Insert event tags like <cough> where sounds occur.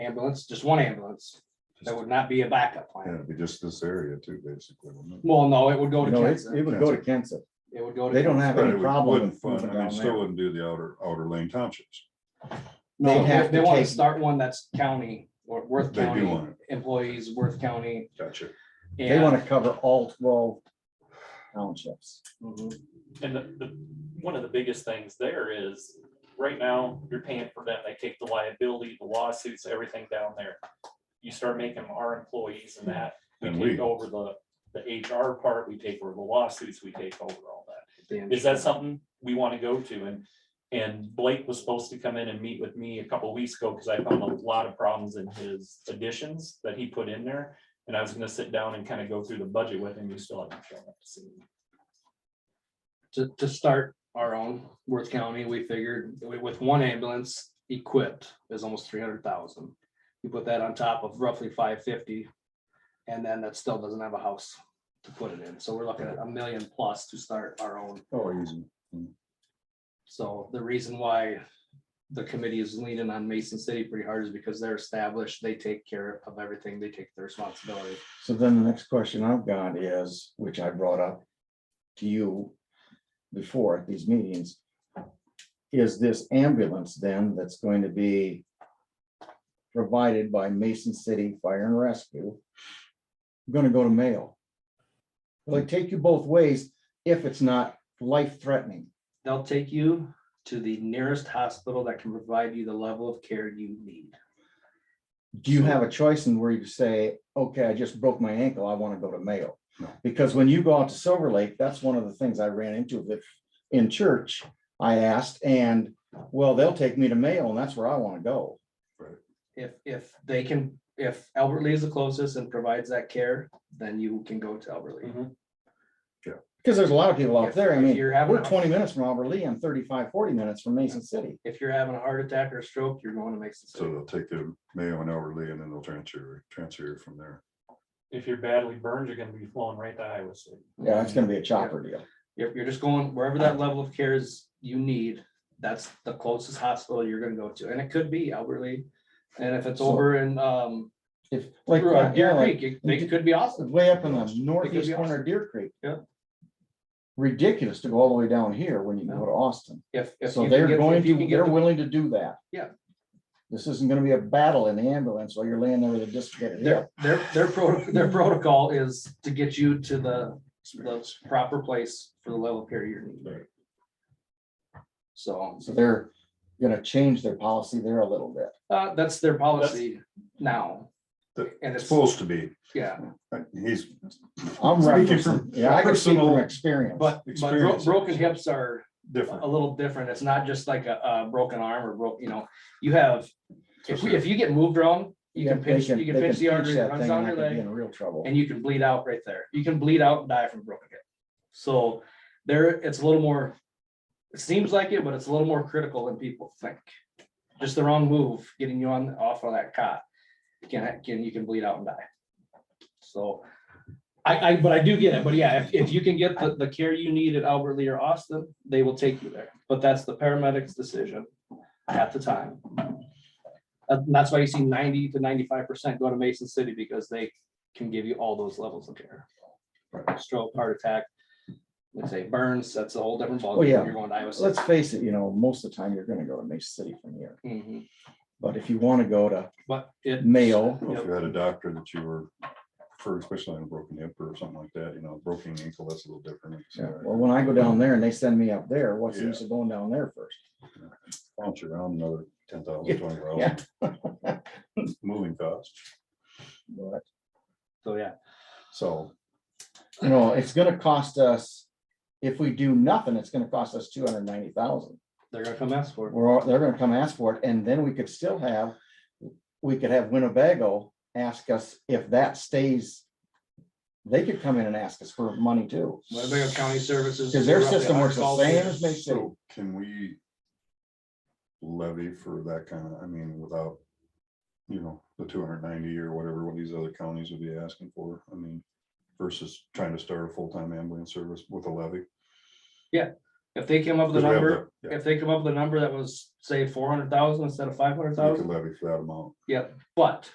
ambulance, just one ambulance. There would not be a backup Yeah, plan. it'd be just this area too, basically. wouldn't it? Well, no, it would go to No, it Kansas. it would go to Kansas. It would go to. They don't have But any it would- problem wouldn't with moving fund- I mean, down still there. wouldn't do the outer, outer lane townships. No, They'd have if they to want to take- start one that's county or Worth They do County, want it. employees, Worth County. Gotcha. They want to cover all twelve townships. mm-hmm. And the, the, one of the biggest things there is, right now, you're paying for them, they take the liability, the lawsuits, everything down there. You start making them our employees and that, we And we- take over the, the HR part, we take over the lawsuits, we take over all that. and- Is that something we want to go to? And, and Blake was supposed to come in and meet with me a couple weeks ago, because I found a lot of problems in his additions that he put in there. And I was gonna sit down and kind of go through the budget with him, you still haven't shown up to see me. to, to start our own Worth County, we figured wi- with one ambulance equipped is almost three hundred thousand. You put that on top of roughly five fifty, and then that still doesn't have a house to put it in. So we're looking at a million plus to start our own. Oh, easy. So the reason why the committee is leaning on Mason City pretty hard is because they're established, they take care of everything, they take the responsibility. So then the next question I've got is, which I brought up to you before at these meetings. Is this ambulance then that's going to be provided by Mason City Fire and Rescue? Gonna go to Mayo? Will it take you both ways if it's not life threatening? They'll take you to the nearest hospital that can provide you the level of care you need. Do you have a choice in where you say, okay, I just broke my ankle, I want to go to Mayo? No. Because when you go out to Silver Lake, that's one of the things I ran into with, in church, I asked, and, well, they'll take me to Mayo, and that's where I want to go. if, if they can, if Albert Lee is the closest and provides that care, then you can go to Albert Lee. Mhm. Because there's a lot of people out there, I If- if mean, you're having we're a- twenty minutes from Albert Lee, and 35, 40 minutes from Mason City. If you're having a heart attack or a stroke, you're going to Mason So City. they'll take the Mayo and Elberly and then they'll transfer, transfer from there. if you're badly burned, you're gonna be flown right to Iowa City. Yeah, it's gonna Mm-hmm. be a chopper deal. You're, you're just going wherever that level of care is you need, that's the closest hospital you're gonna go to, and it could be Albert Lee. And if it's So- over in, um, If, like, through, uh, yeah, Deer like, Creek, it- they could be awesome. way up in the northeast be corner of Deer Creek. Yeah. Ridiculous to go all the way down here when you go to Austin. If, if you So can they're get- if going you to, can get they're the- willing to do that. Yeah. This isn't gonna be a battle in the ambulance while you're laying there with a dislocated hip. Their, their, their pro, their protocol is to get you to the, the proper place for the level of care you're needing. Right. So. So they're gonna change their policy there a little bit. Uh, that's their policy now. That- And It's it's, supposed to be, yeah, Uh, he's. I'm Speaking referencing, from yeah, I can speak from personal- experience. but, but bro- Experience. broken hips are a Different. little different. It's not just like a, a broken arm or broke, you know, you have, if, we- if you get moved wrong, you can They pinch, you they can pinch the artery that that runs thing down and I your could be leg In real trouble. and you can bleed out right there. You can bleed out and die from a broken hip. So there, it's a little more, it seems like it, but it's a little more critical than people think. Just the wrong move, getting you on, off of that cot, can, can, you can bleed out and die. So I, I, but I do get it, but yeah, if, if you can get the, the care you need at Albert Lee or Austin, they will take you there. But that's the paramedic's decision at the time. Uh, And that's why you see ninety to ninety-five percent go to Mason City because they can give you all those levels of care. Stroke, heart attack, let's say burns, that's a whole different ballgame. Oh, if yeah. You're going to Iowa City. Let's face it, you know, most of the time you're gonna go to Mason City from here, Mhm. but if you wanna go to But it. Mayo, Well, If Yep. you had a doctor that you were, for especially on a broken hip or something like that, you know, broken ankle, that's a little different. It's, yeah, uh, well, when I go down there and they send me up there, what's the Yeah. use of going down there first? Bounce around another ten Yeah, thousand, twenty thousand. <laughs> Moving costs, But So, yeah, so. you know, it's gonna cost us, if we do nothing, it's gonna cost us two hundred ninety thousand. they're gonna come ask for it. We're, all- they're gonna come ask for it, and then we could still have, we could have Winnebago ask us if that stays. They could come in and ask us for money too, Winnebago County Services. because their roughly system works the 100 same calls as Mason City. So can we levy for that kind of, I mean, without, you know, the two hundred ninety or whatever, what these other counties would be asking for, I mean, versus trying to start a full-time ambulance service with a levy? If they came up with a Because we have number, the- yeah, if they come up with a number that was, say, four hundred thousand instead of five hundred You could thousand, levy for that amount. but